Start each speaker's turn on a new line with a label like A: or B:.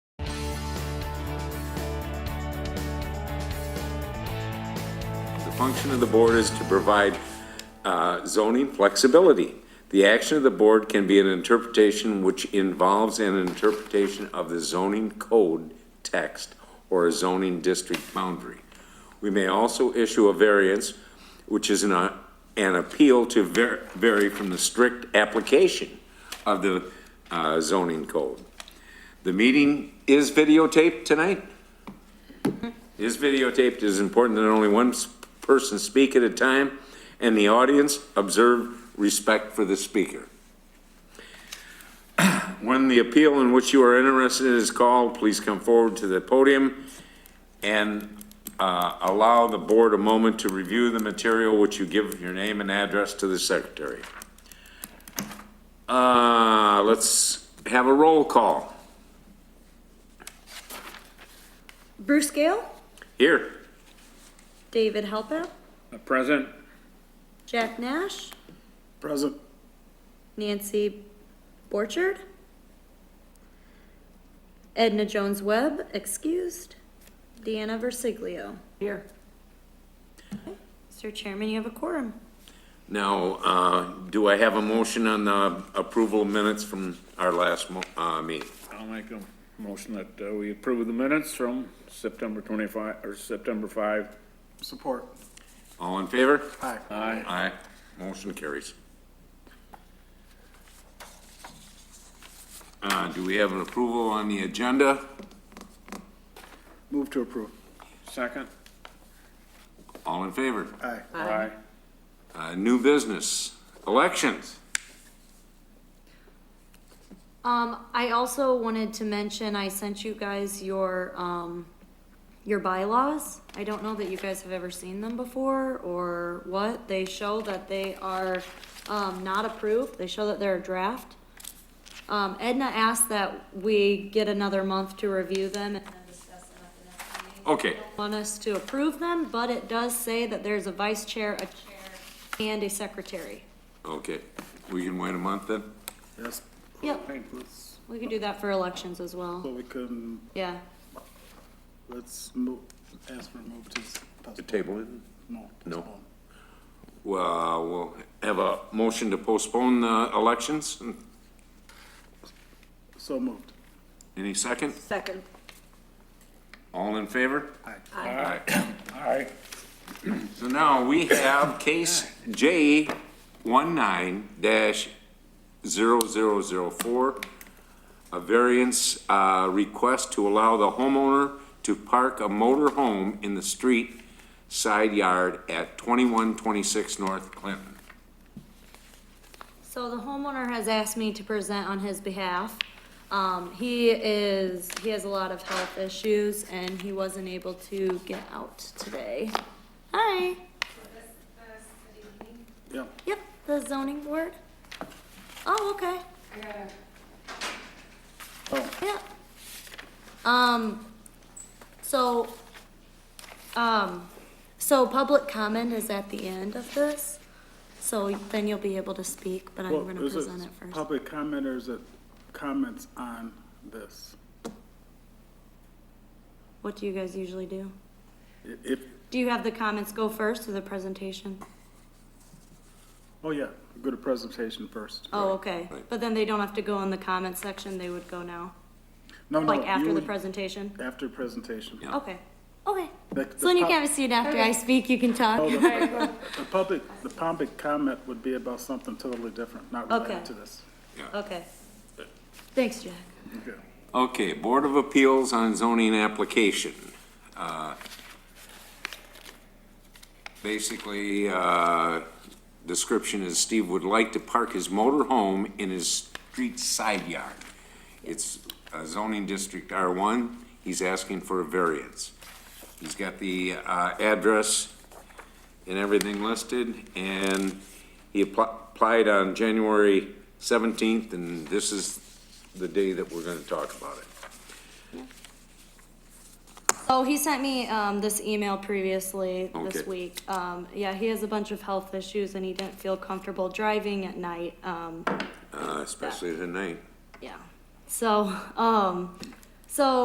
A: function of the board is to provide uh, zoning flexibility. The action of the board can be an interpretation which involves an interpretation of the zoning code text or a zoning district boundary. We may also issue a variance, which is an, uh, an appeal to ver- vary from the strict application of the uh, zoning code. The meeting is videotaped tonight? is videotaped. It is important that only one s- person speak at a time, and the audience observe respect for the speaker. When the appeal in which you are interested is called, please come forward to the podium and uh, allow the board a moment to review the material which you give your name and address to the secretary. Uh, Let's have a roll call.
B: Bruce Gale,
A: Here.
B: David Halper,
C: Present.
B: Jack Nash,
C: Present.
B: Nancy Borchard, Edna Jones Webb, excused, Deanna Versiglio.
D: Here.
B: Mr. Chairman, you have a quorum.
A: Now, uh, do I have a motion on the approval of minutes from our last mo- uh, meeting?
C: I'll make a motion that uh, we approve the minutes from September twenty-five, or September five.
D: Support.
A: All in favor?
D: Aye.
C: Aye.
A: Aye. Motion carries. Uh, Do we have an approval on the agenda?
D: Move to approve.
C: Second.
A: All in favor?
D: Aye.
C: Aye.
A: Uh, New business, elections.
B: Um, I also wanted to mention, I sent you guys your, um, your bylaws. I don't know that you guys have ever seen them before or what. They show that they are, um, not approved. They show that they're a draft. Um, Edna asked that we get another month to review them and then discuss them at the next meeting
A: Okay,
B: want us to approve them, but it does say that there's a vice chair, a chair, and a secretary.
A: okay. We can wait a month then?
D: Yes.
B: Yep,
D: Let's,
B: we can do that for elections as well,
D: well, we can,
B: yeah.
D: let's move, ask for a move to.
A: The
D: postpone.
A: table it?
D: No.
A: No.
D: postpone.
A: Well, we'll have a motion to postpone the elections.
D: So moved.
A: Any second?
E: Second.
A: All in favor?
D: Aye.
A: Aye.
C: Aye.
A: So now we have case J one-nine dash zero-zero-zero-four, a variance, uh, request to allow the homeowner to park a motor home in the street side yard at twenty-one twenty-six North Clinton.
B: So the homeowner has asked me to present on his behalf. Um, he is, he has a lot of health issues and he wasn't able to get out today. Hi,
D: Yeah.
B: yep, the zoning board. Oh, okay.
D: Oh,
B: Yeah. Um, so, um, so public comment is at the end of this, so then you'll be able to speak, but I'm
D: well,
B: gonna
D: is it
B: present it first.
D: public commenters that comments on this?
B: What do you guys usually do?
D: I- If,
B: Do you have the comments go first or the presentation?
D: oh, yeah, go to presentation first.
B: Oh, okay,
A: right.
B: but then they don't have to go in the comment section, they would go now,
D: No, no,
B: like after
D: you-
B: the presentation?
D: After presentation.
A: Yeah.
B: Okay, okay.
D: The- the
B: So then you
D: pub-
B: can have a seat after I speak, you can talk.
D: Oh, The the public, the public comment would be about something totally different, not
B: Okay.
D: related to this.
B: Okay. Thanks, Jack.
D: Okay.
A: Okay, Board of Appeals on zoning application. Uh, Basically, uh, description is Steve would like to park his motor home in his street side yard. It's uh, zoning district R1, he's asking for a variance. He's got the uh, address and everything listed, and he appli- applied on January 17th, and this is the day that we're gonna talk about it.
B: Oh, he sent me, um, this email previously this
A: Okay.
B: week. Um, yeah, he has a bunch of health issues and he didn't feel comfortable driving at night, um,
A: Uh, especially tonight.
B: yeah. So, um, so